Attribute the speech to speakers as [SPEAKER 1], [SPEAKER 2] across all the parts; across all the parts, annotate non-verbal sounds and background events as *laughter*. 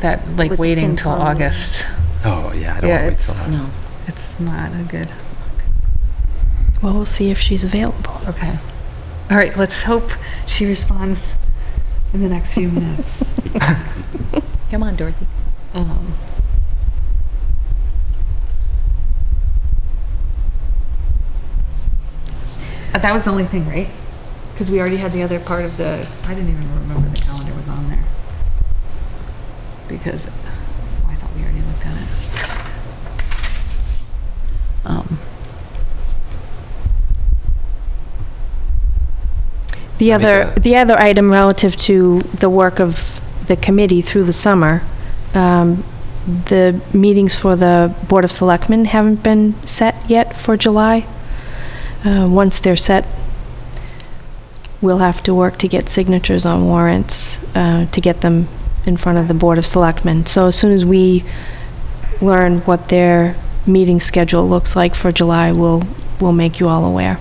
[SPEAKER 1] that, like,
[SPEAKER 2] Was
[SPEAKER 1] waiting till
[SPEAKER 2] FinCom.
[SPEAKER 1] August,
[SPEAKER 3] Oh, yeah, I
[SPEAKER 1] Yeah,
[SPEAKER 3] don't want to wait
[SPEAKER 1] it's-
[SPEAKER 3] till August.
[SPEAKER 2] No.
[SPEAKER 1] it's not a good,
[SPEAKER 4] Well, we'll see if she's available.
[SPEAKER 1] okay. All right, let's hope she responds in the next few minutes.
[SPEAKER 2] *laughs* Come on, Dorothy.
[SPEAKER 1] Um, uh, That was the only thing, right? Because we already had the other part of the, I didn't even remember the calendar was on there. Because, oh, I thought we already looked at it. Um,
[SPEAKER 4] The
[SPEAKER 3] Let me
[SPEAKER 4] other,
[SPEAKER 3] go.
[SPEAKER 4] the other item relative to the work of the committee through the summer, um, the meetings for the Board of Selectmen haven't been set yet for July. Uh, Once they're set, we'll have to work to get signatures on warrants uh, to get them in front of the Board of Selectmen. So as soon as we learn what their meeting schedule looks like for July, we'll, we'll make you all aware.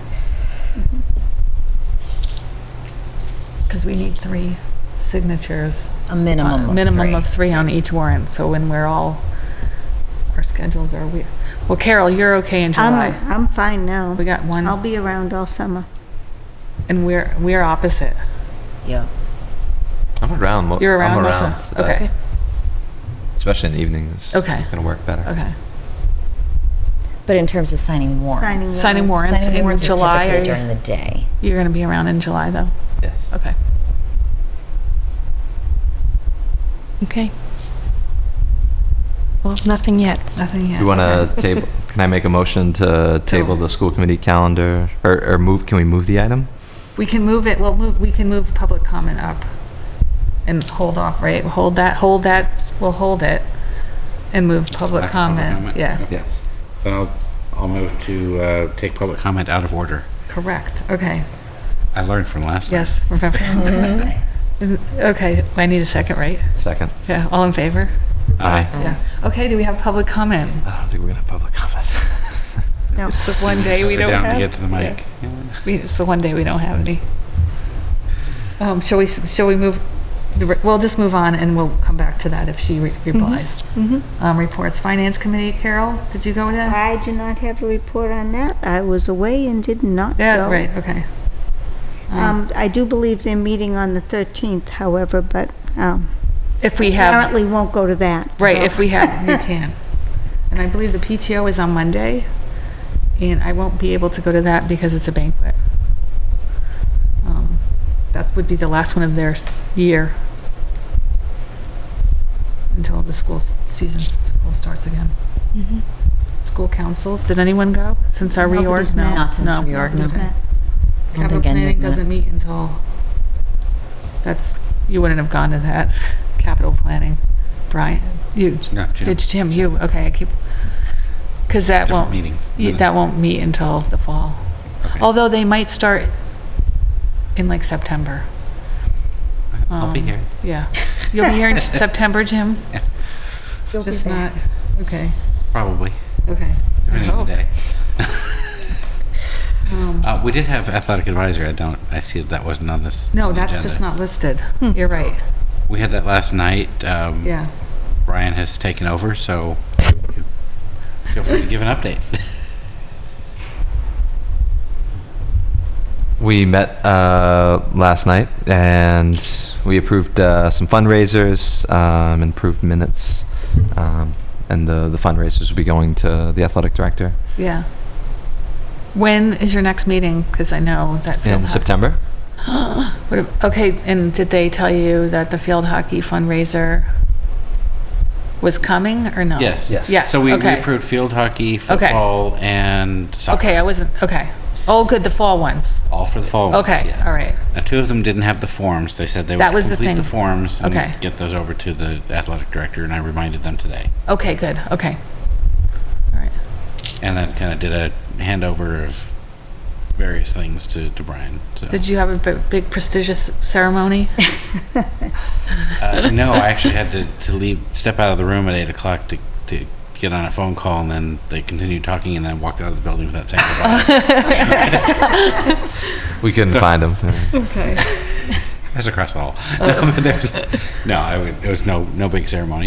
[SPEAKER 1] Because we need three signatures.
[SPEAKER 2] A
[SPEAKER 1] uh,
[SPEAKER 2] minimum of
[SPEAKER 1] Minimum
[SPEAKER 2] three.
[SPEAKER 1] of three on each warrant, so when we're all, our schedules are weird. Well, Carol, you're okay in
[SPEAKER 5] I'm,
[SPEAKER 1] July.
[SPEAKER 5] I'm fine now.
[SPEAKER 1] We got
[SPEAKER 5] I'll
[SPEAKER 1] one,
[SPEAKER 5] be around all summer.
[SPEAKER 1] and we're, we're opposite.
[SPEAKER 2] Yeah.
[SPEAKER 3] I'm around. mo-
[SPEAKER 1] You're around,
[SPEAKER 3] I'm
[SPEAKER 1] Melissa?
[SPEAKER 3] around. so that-
[SPEAKER 1] Okay,
[SPEAKER 3] Especially in the evenings.
[SPEAKER 1] okay,
[SPEAKER 3] Gonna work better.
[SPEAKER 1] okay.
[SPEAKER 2] But in terms of signing warrants.
[SPEAKER 5] Signing
[SPEAKER 1] Signing warrants
[SPEAKER 2] Signing
[SPEAKER 1] in
[SPEAKER 2] warrants is
[SPEAKER 1] July.
[SPEAKER 2] typically
[SPEAKER 1] are you-
[SPEAKER 2] during the day.
[SPEAKER 1] You're going to be around in July, though?
[SPEAKER 3] Yes.
[SPEAKER 1] Okay.
[SPEAKER 4] Okay. Well, nothing yet.
[SPEAKER 1] Nothing yet.
[SPEAKER 3] You want
[SPEAKER 1] okay.
[SPEAKER 3] to table, can I make a motion to table the school committee calendar, or, or move, can we move the item?
[SPEAKER 1] We can move it, well, move- we can move public comment up and hold off, right? Hold that, hold that, we'll hold it and move public
[SPEAKER 6] Back to public
[SPEAKER 1] comment.
[SPEAKER 6] comment,
[SPEAKER 1] Yeah,
[SPEAKER 6] yep.
[SPEAKER 3] Yes.
[SPEAKER 6] Then I'll, I'll move to uh, take public comment out of order.
[SPEAKER 1] correct. Okay,
[SPEAKER 6] I learned from last time.
[SPEAKER 1] yes. remember. Okay, I need a second, right?
[SPEAKER 3] Second.
[SPEAKER 1] Yeah, all in favor?
[SPEAKER 3] Aye.
[SPEAKER 1] Yeah. Okay, do we have public comment?
[SPEAKER 3] I don't think we're gonna have public comments. *laughs*
[SPEAKER 5] No,
[SPEAKER 1] The one day we
[SPEAKER 6] We're
[SPEAKER 1] don't
[SPEAKER 6] Down
[SPEAKER 1] have.
[SPEAKER 6] to get to the mic.
[SPEAKER 1] We- It's the one day we don't have any. Um, shall we, shall we move, the re- we'll just move on and we'll come back to that if she re- replies. Um, reports, Finance Committee, Carol, did you go with that?
[SPEAKER 5] I do not have a report on that. I was away and did not go.
[SPEAKER 1] Yeah, right, okay.
[SPEAKER 5] Um, I do believe they're meeting on the 13th, however, but um,
[SPEAKER 1] If we have,
[SPEAKER 5] apparently won't go to that.
[SPEAKER 1] right,
[SPEAKER 5] so-
[SPEAKER 1] if we have, *laughs* you can. And I believe the PTO is on Monday and I won't be able to go to that because it's a banquet. Um, That would be the last one of their s- year until the school s- season, school starts again. Mm-hmm. School councils, did anyone go since our
[SPEAKER 5] Nobody's
[SPEAKER 1] reorg? No,
[SPEAKER 5] met.
[SPEAKER 1] no.
[SPEAKER 2] Not since reorg,
[SPEAKER 5] Nobody's
[SPEAKER 1] okay.
[SPEAKER 5] met.
[SPEAKER 2] I don't
[SPEAKER 1] Capital
[SPEAKER 2] think any
[SPEAKER 1] planning
[SPEAKER 2] of that.
[SPEAKER 1] doesn't meet until, that's, you wouldn't have gone to that, capital planning. Brian, you,
[SPEAKER 6] No, Jim.
[SPEAKER 1] did Jim, you, okay, I keep, because that
[SPEAKER 6] Different
[SPEAKER 1] won't.
[SPEAKER 6] meeting
[SPEAKER 1] you- That
[SPEAKER 6] minutes.
[SPEAKER 1] won't meet until the fall.
[SPEAKER 6] Okay.
[SPEAKER 1] Although they might start in like September.
[SPEAKER 6] I'll be
[SPEAKER 1] Um,
[SPEAKER 6] here.
[SPEAKER 1] Yeah. You'll be here
[SPEAKER 6] *laughs*
[SPEAKER 1] in September, Jim?
[SPEAKER 5] You'll be
[SPEAKER 1] Just
[SPEAKER 5] back.
[SPEAKER 1] not, okay,
[SPEAKER 6] Probably,
[SPEAKER 1] okay.
[SPEAKER 6] depending on the
[SPEAKER 1] Oh.
[SPEAKER 6] day.
[SPEAKER 1] Um,
[SPEAKER 6] Uh, We did have athletic advisor. I don't, I see that wasn't on this.
[SPEAKER 1] No,
[SPEAKER 6] on the
[SPEAKER 1] that's just
[SPEAKER 6] agenda.
[SPEAKER 1] not listed.
[SPEAKER 5] Hmm.
[SPEAKER 1] You're right,
[SPEAKER 6] We had that last night. Um,
[SPEAKER 1] yeah.
[SPEAKER 6] Brian has taken over, so you- feel free to give
[SPEAKER 1] *laughs*
[SPEAKER 6] an update.
[SPEAKER 1] Oh.
[SPEAKER 3] We met uh, last night and we approved uh, some fundraisers, um, improved minutes, um, and the, the fundraisers will be going to the athletic director
[SPEAKER 1] Yeah. When is your next meeting? Because I know that. field
[SPEAKER 3] in
[SPEAKER 1] hoc-
[SPEAKER 3] September.
[SPEAKER 1] What ab- Okay, and did they tell you that the field hockey fundraiser was coming or no?
[SPEAKER 6] Yes.
[SPEAKER 3] Yes.
[SPEAKER 1] Yes,
[SPEAKER 6] So we we
[SPEAKER 1] okay.
[SPEAKER 6] approved field hockey, football, and soccer.
[SPEAKER 1] Okay, I wasn't, okay. Oh, good, the fall ones.
[SPEAKER 6] All for the fall. ones,
[SPEAKER 1] Okay,
[SPEAKER 6] yes.
[SPEAKER 1] all right.
[SPEAKER 6] Now, two of them didn't have the forms. They said they
[SPEAKER 1] That
[SPEAKER 6] would
[SPEAKER 1] was the
[SPEAKER 6] complete
[SPEAKER 1] thing.
[SPEAKER 6] the forms and
[SPEAKER 1] Okay.
[SPEAKER 6] get those over to the athletic director, and I reminded them today.
[SPEAKER 1] Okay, good, okay. All right,
[SPEAKER 6] And then kind of did a handover of various things to, to Brian. So.
[SPEAKER 1] Did you have a bi- big prestigious ceremony?
[SPEAKER 6] uh,
[SPEAKER 1] *laughs*
[SPEAKER 6] no, I actually had to, to leave, step out of the room at 8 o'clock to, to get on a phone call, and then they continued talking, and then walked out of the building without saying
[SPEAKER 1] *laughs*
[SPEAKER 6] goodbye.
[SPEAKER 3] We *laughs* couldn't find him.
[SPEAKER 1] Okay. Oh.
[SPEAKER 6] *laughs* That's across the hall. No, but there's- no I was, there was no, no big ceremony.